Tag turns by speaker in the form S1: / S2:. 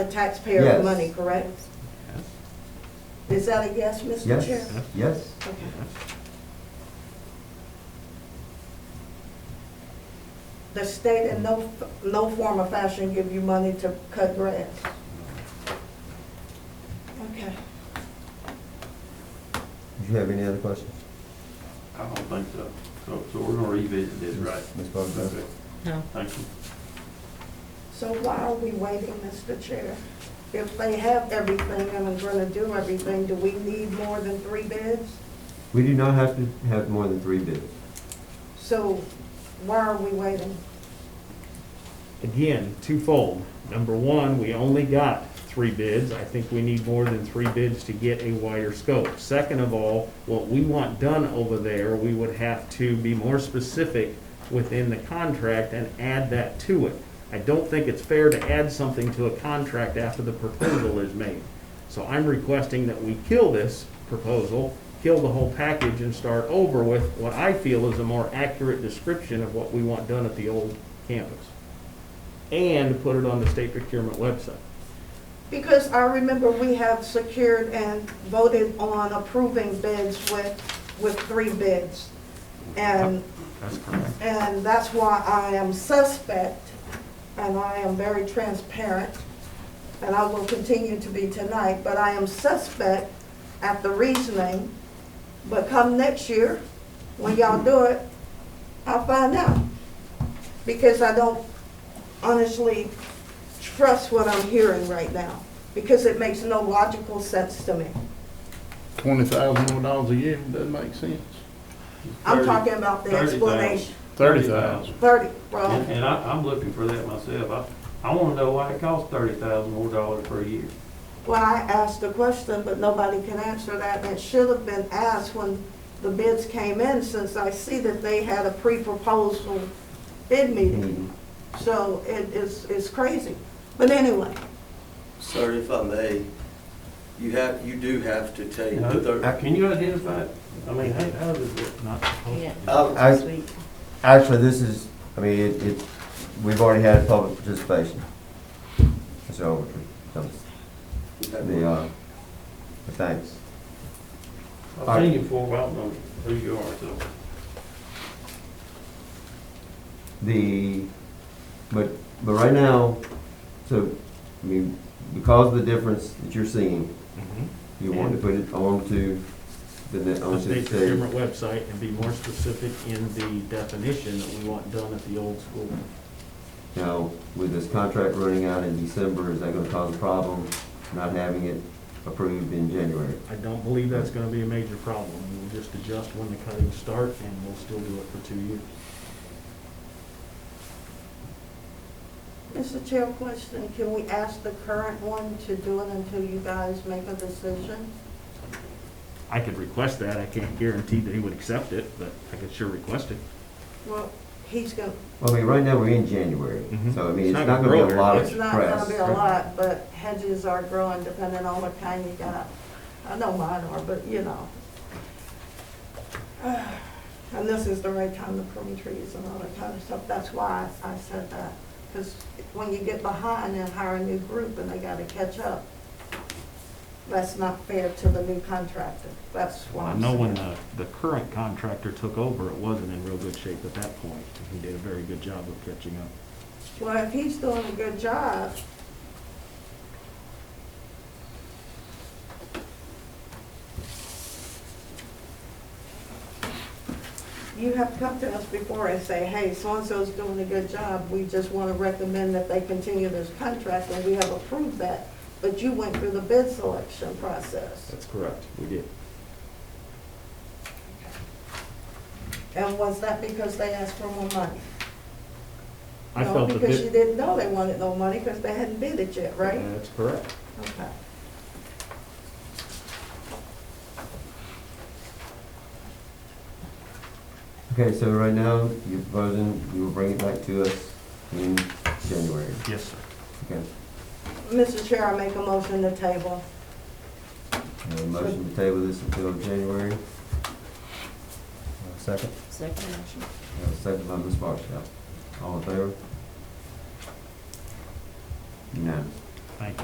S1: taxpayer
S2: Yes.
S1: money, correct? Is that a yes, Mr. Chair?
S2: Yes, yes.
S1: Okay. The state in no, no form or fashion give you money to cut grass. Okay.
S2: Do you have any other questions?
S3: I don't think so. So, so we're gonna revisit this, right?
S2: Ms. Bogdan?
S3: Okay.
S4: No.
S3: Thank you.
S1: So why are we waiting, Mr. Chair? If they have everything and are gonna do everything, do we need more than three bids?
S2: We do not have to have more than three bids.
S1: So why are we waiting?
S5: again, twofold. Number one, we only got three bids. I think we need more than three bids to get a wider scope. Second of all, what we want done over there, we would have to be more specific within the contract and add that to it. I don't think it's fair to add something to a contract after the proposal is made. So I'm requesting that we kill this proposal, kill the whole package and start over with what I feel is a more accurate description of what we want done at the old campus and put it on the state procurement website.
S1: Because I remember we have secured and voted on approving bids with, with three bids. And,
S5: That's correct.
S1: and that's why I am suspect, and I am very transparent, and I will continue to be tonight, but I am suspect at the reasoning. But come next year, when y'all do it, I'll find out. Because I don't honestly trust what I'm hearing right now, because it makes no logical sense to me.
S6: twenty thousand more dollars a year, doesn't make sense.
S1: I'm talking about the
S3: 30,000.
S1: explanation.
S6: Thirty thousand.
S1: Thirty, well,
S3: And, and I, I'm looking for that myself. I, I wanna know why it costs thirty thousand more dollars per year.
S1: well, I asked the question, but nobody can answer that, and it should have been asked when the bids came in, since I see that they had a pre-proposal bid meeting. So it is, it's crazy. But anyway,
S7: Sir, if I may, you have, you do have to take
S3: You know,
S7: the third.
S3: Can you identify, it? I mean, how, how does it not?
S7: I-
S2: I- Actually, this is, I mean, it, it, we've already had public participation. So, um, the, uh, the thanks.
S3: I've seen you before, but I don't know who you are, so.
S2: The, but, but right now, so, I mean, because of the difference that you're seeing,
S3: Mm-hmm.
S2: you want to put it on to the, net-
S5: The
S2: on to the
S5: state
S2: state.
S5: procurement website and be more specific in the definition that we want done at the old school.
S2: Now, with this contract running out in December, is that gonna cause a problem not having it approved in January?
S5: I don't believe that's gonna be a major problem. We'll just adjust when the cuttings start and we'll still do it for two years.
S1: Mr. Chair, question, can we ask the current one to do it until you guys make a decision?
S5: I could request that. I can't guarantee that he would accept it, but I could sure request it.
S1: Well, he's gonna,
S2: Well, I mean, right now, we're in January,
S5: Mhm.
S2: so I mean,
S5: It's
S2: it's
S5: not
S2: not
S5: gonna
S2: gonna be a
S5: grow
S2: lot of
S1: It's not gonna
S2: press.
S1: be a lot, but hedges are growing depending on what kind you got. I know mine are, but you know. And this is the right time to prune trees and all that kind of stuff. That's why I I said that. Because when you get behind and hire a new group and they gotta catch up, that's not fair to the new contractor. That's
S5: Well,
S1: why
S5: I
S1: I'm
S5: know when
S1: saying.
S5: the, the current contractor took over, it wasn't in real good shape at that point. He did a very good job of catching up.
S1: Well, if he's doing a good job, you have to come to us before and say, hey, so-and-so's doing a good job. We just want to recommend that they continue this contract, and we have approved that. But you went through the bid selection process.
S5: That's correct. We did.
S1: And was that because they asked for more money?
S5: I felt
S1: No,
S5: that
S1: because
S5: thi-
S1: you didn't know they wanted no money because they hadn't bid it yet, right?
S5: That's correct.
S1: Okay.
S2: Okay, so right now, you're proposing, you will bring it back to us in January,
S5: Yes, sir.
S2: okay?
S1: Mr. Chair, I make a motion to table.
S2: And a motion to table this until January. Uh, Second?
S4: Second motion.
S2: Uh, Second by Ms. Barksdale. All in favor? Unanimous.